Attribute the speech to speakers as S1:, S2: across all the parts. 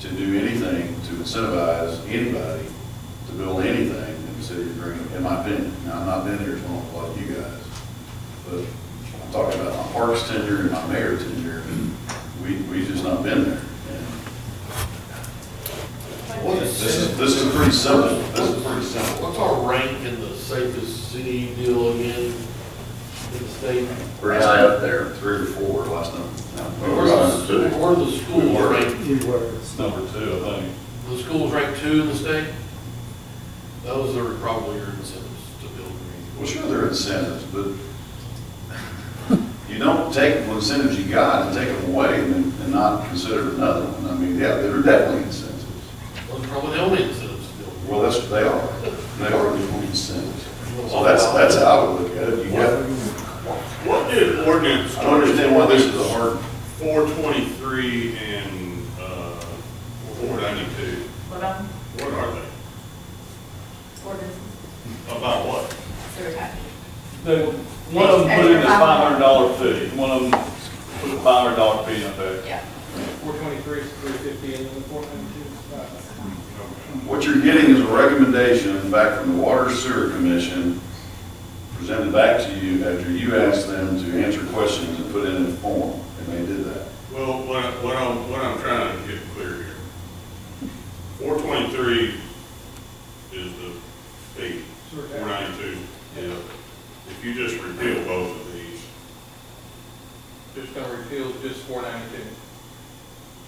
S1: to do anything to incentivize anybody to build anything in the city of Greenwood, in my opinion. Now, I've not been here as long as like you guys, but I'm talking about my parks tenure and my mayor tenure, we, we just not been there. And This is, this is pretty simple, this is pretty simple.
S2: What's our rank in the safest city deal again in the state?
S1: Pretty high up there, three or four last time.
S2: Where's the, where are the schools
S1: Where?
S2: ranked?
S3: Few words.
S4: It's number two, I think.
S2: The schools ranked two in the state? Those are probably your incentives to build green.
S1: Well, sure, there are incentives, but you don't take what incentives you got and take them away and then- and not consider another one. I mean, yeah, there are definitely incentives.
S2: Those are probably the only incentives to build green.
S1: Well, that's what they are. They are the only incentives. So that's, that's how I would look at it. You got,
S5: What did ordinance
S1: I don't understand why this is a hard,
S5: four twenty-three and, uh, four ninety-two,
S6: What on
S5: what are they?
S6: ordinance,
S5: About what?
S6: sewer tax?
S4: The, one of them put in a five hundred dollar fee, one of them put a five hundred dollar fee in there.
S6: Yeah.
S7: Four twenty-three, three fifty, and then four ninety-two is five.
S1: what you're getting is a recommendation back from the Water Sewer Commission presented back to you after you asked them to answer questions and put in a form, and they did that.
S5: Well, what, what I'm, what I'm trying to get clear here. Four twenty-three is the fee,
S7: Sure.
S5: four ninety-two is, if you just repeal both of these,
S7: Just gonna repeal just four ninety-two.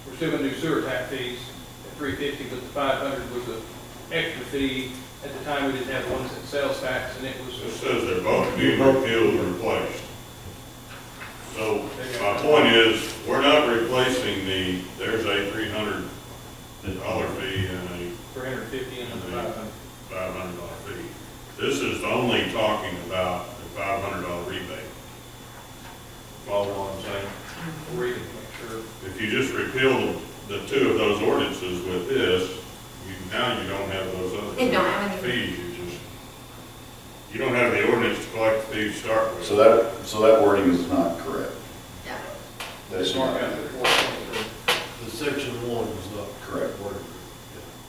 S7: We're still gonna do sewer tax fees at three fifty, but the five hundred was an extra fee. At the time, we didn't have one cent sales tax, and it was,
S5: It says they're both being repealed and replaced. So my point is, we're not replacing the, there's a three hundred dollar fee and a
S7: three hundred fifty and then five hundred.
S5: five hundred dollar fee. This is only talking about the five hundred dollar rebate. Follow what I'm saying?
S7: We'll read it, make sure.
S5: If you just repeal the two of those ordinances with this, you, now you don't have those other.
S6: It don't have any.
S5: Fees, you just, you don't have the ordinance to collect the fees to start with.
S1: So that, so that wording is not correct.
S6: Yeah.
S1: That's
S7: Mark
S1: not
S7: out the four twenty-three.
S2: The section one is not.
S1: Correct.
S2: Word.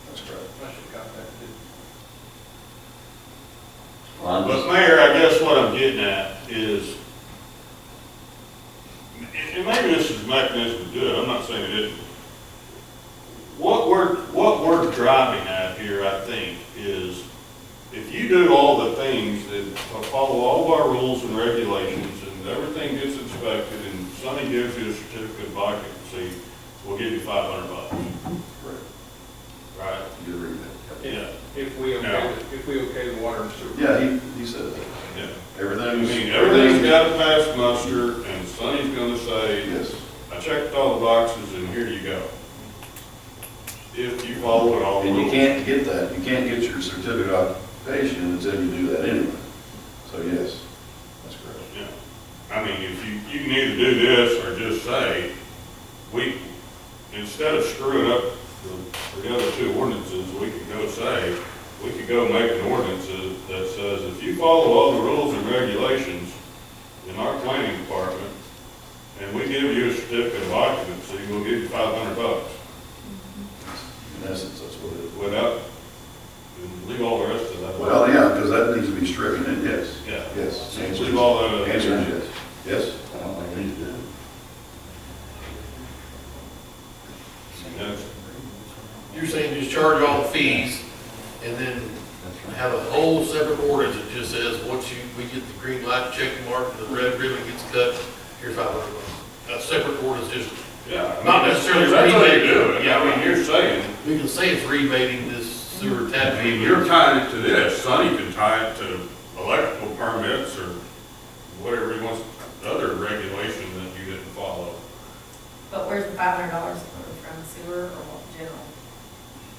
S1: That's correct.
S7: I should copy that too.
S5: But Mayor, I guess what I'm getting at is, and and maybe this is mechanism to do it, I'm not saying it isn't. What we're, what we're driving at here, I think, is if you do all the things that follow all of our rules and regulations and everything gets inspected and Sonny gives you a certificate of occupancy, we'll give you five hundred bucks,
S1: Correct.
S5: right?
S1: You agree with that?
S5: Yeah.
S7: If- If we
S5: No.
S7: okay, the- if we okay the water and sewer.
S1: Yeah, he, he said that.
S5: Yeah. I
S1: Everything's.
S5: mean, everything's got to pass muster and Sonny's gonna say,
S1: Yes.
S5: I checked all the boxes and here you go. If you follow it all.
S1: And you can't get that, you can't get your certificate of occupation until you do that anyway. So yes, that's correct.
S5: Yeah. I mean, if you, you can either do this or just say, we, instead of screwing up the, the other two ordinances, we could go say, we could go make an ordinance that- that says, if you follow all the rules and regulations in our planning department, and we give you a certificate of occupancy, we'll give you five hundred bucks.
S1: In essence, that's what it is.
S5: without, and leave all the rest of that.
S1: Well, yeah, because that needs to be stricken, and yes,
S5: Yeah.
S1: yes. The answer is-
S5: Leave all that.
S1: the Answer is yes. Yes? I don't think he did.
S5: Yes.
S2: You're saying just charge all the fees and then have a whole separate ordinance that just says, once you, we get the green light check mark, the red ribbon gets cut, here's five hundred bucks. A separate ordinance, just,
S5: Yeah.
S2: Not necessarily
S5: That's how you
S2: rebate.
S5: do it. I mean, you're saying,
S2: we can say it's rebating this sewer tap
S5: I
S2: fee.
S5: mean, you're tying it to this, Sonny can tie it to electrical permits or whatever he wants, other regulation that you didn't follow.
S6: But where's the five hundred dollars coming from sewer or what, general?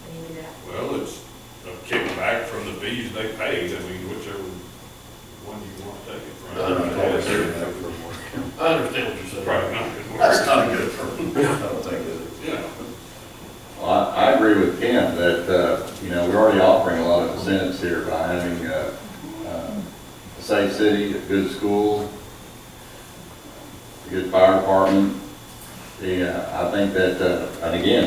S6: When you do that?
S5: Well, it's a kickback from the fees they paid, I mean, whichever one you want to take it from.
S1: I don't know.
S2: I understand what you're saying.
S5: Probably not good work.
S1: That's not a good term. I don't think it is.
S5: Yeah.
S8: Well, I I agree with Ken that, uh, you know, we're already offering a lot of incentives here by having uh, uh, a safe city, a good school, a good fire department. Yeah, I think that, uh, and again,